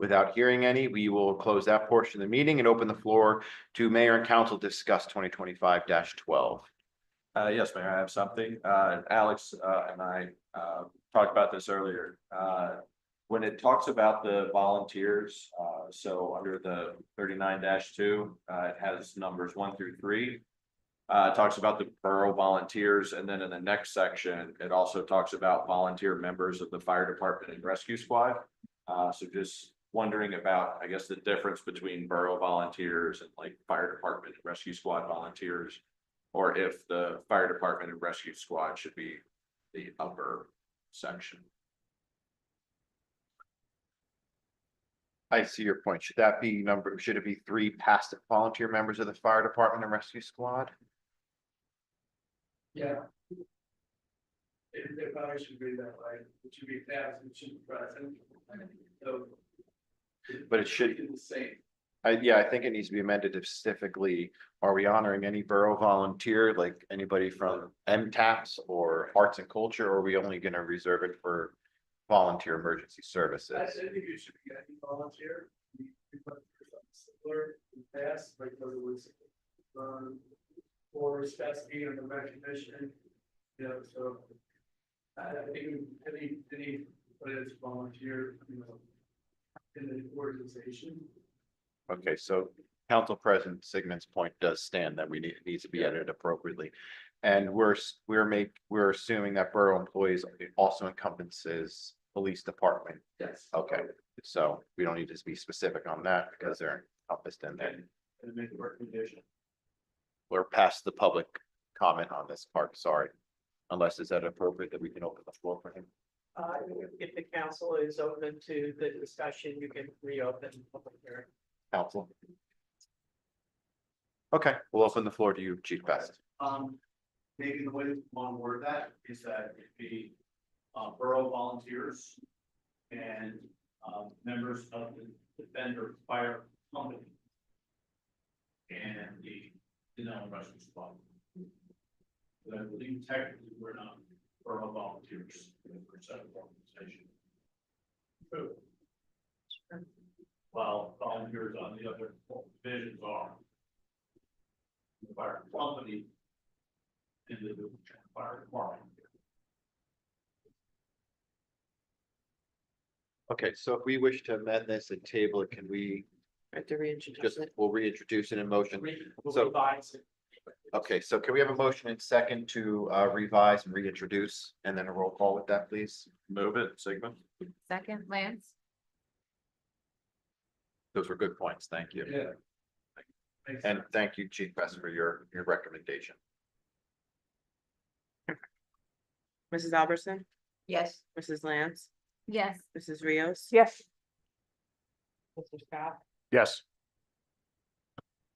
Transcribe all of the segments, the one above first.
Without hearing any, we will close that portion of the meeting and open the floor to mayor and council to discuss twenty twenty-five twelve. Uh, yes, Mayor, I have something. Uh, Alex, uh, and I, uh, talked about this earlier. Uh, when it talks about the volunteers, uh, so under the thirty-nine two, uh, it has numbers one through three. Uh, it talks about the borough volunteers, and then in the next section, it also talks about volunteer members of the fire department and rescue squad. Uh, so just wondering about, I guess, the difference between borough volunteers and like fire department, and rescue squad volunteers. Or if the fire department and rescue squad should be the upper section. I see your point. Should that be number, should it be three past volunteer members of the fire department and rescue squad? Yeah. It, it probably should be that way, it should be past, it should be present, so. But it should- be The same, I, yeah, I think it needs to be amended to specifically, are we honoring any borough volunteer, like anybody from MTAPs or Arts and Culture, or are we only gonna reserve it for volunteer emergency I, I services? think you should be, I think volunteer. we- we put something Similar, in the past, like whether it was, um, or Spassky and the recognition, you know, so. I, I think, any, any, but it's volunteer, you know. In the organization, Okay, so Council President Sigmund's point does stand that we need, it needs to be edited appropriately. And we're, s- we're make, we're assuming that borough employees also encompasses police department. yes. Okay, so we don't need to be specific on that because they're encompassed in there. And make a recommendation. We're past the public comment on this part, sorry. Unless is that appropriate that we can open the floor for him? Uh, if the council is open to the discussion, you can reopen the public hearing. Council? Okay, we'll open the floor to you, Chief Best. Um, maybe the way to one word that is that it be, uh, borough volunteers and, um, members of the defender fire company. And the, the non-Russian squad. But I believe technically we're not borough volunteers, we're a separate organization. True. While volunteers on the other divisions are. the Fire company in the fire department. Okay, so if we wish to amend this and table it, can we Right, to reintroduce just, it. we'll reintroduce it in motion? So- Revise it. Okay, so can we have a motion and second to uh, revise and reintroduce, and then a roll call with that, please? Move it, Sigmund. Second, Lance? Those were good points, thank you. Yeah. Makes And sense. thank you, Chief Best, for your, your recommendation. Mrs. Albertson, Yes. Mrs. Lance, Yes. Mrs. Rios. Yes. Mr. Scott. Yes.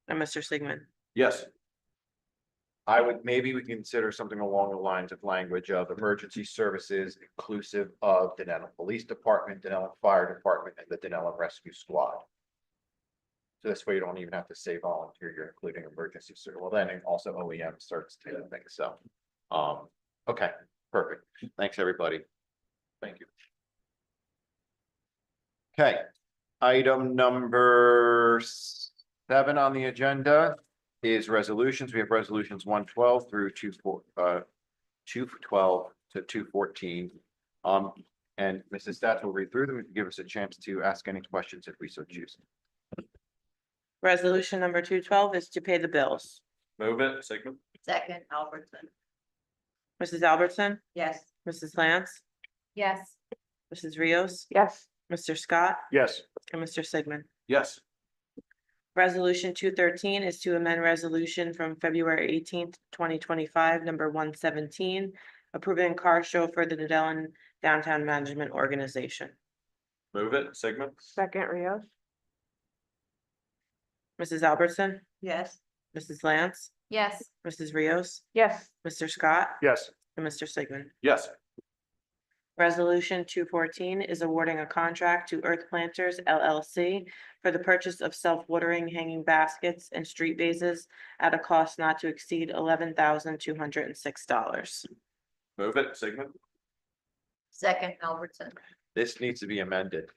And Mr. Sigmund. Yes. I would, maybe we consider something along the lines of language of emergency services inclusive of Denellen Police Department, Denellen Fire Department, and the Denellen Rescue Squad. So this way you don't even have to say volunteer, you're including emergency, ser- well, then and also E OEM certs too, I think so. Um, okay, perfect. Thanks, everybody. Thank you. Okay, item number seven on the agenda is resolutions. We have resolutions one twelve through two four, uh, two twelve to two fourteen. Um, and Mrs. Stats will read through them and give us a chance to ask any questions if we so choose. Resolution number two twelve is to pay the bills. Move it, Sigmund. Second, Albertson? Mrs. Albertson, Yes. Mrs. Lance, Yes. Mrs. Rios, Yes. Mr. Scott, Yes. and Mr. Sigmund. Yes. Resolution two thirteen is to amend resolution from February eighteenth, twenty twenty-five, number one seventeen, approving car show for the Dedelon Downtown Management Organization. Move it, Sigmund. Second, Rios? Mrs. Albertson, Yes. Mrs. Lance, Yes. Mrs. Rios, Yes. Mr. Scott, Yes. and Mr. Sigmund. Yes. Resolution two fourteen is awarding a contract to Earth Planters LLC for the purchase of self-watering hanging baskets and street vases at a cost not to exceed eleven thousand two hundred and six dollars. Move it, Sigmund. Second, Albertson? This needs to be amended.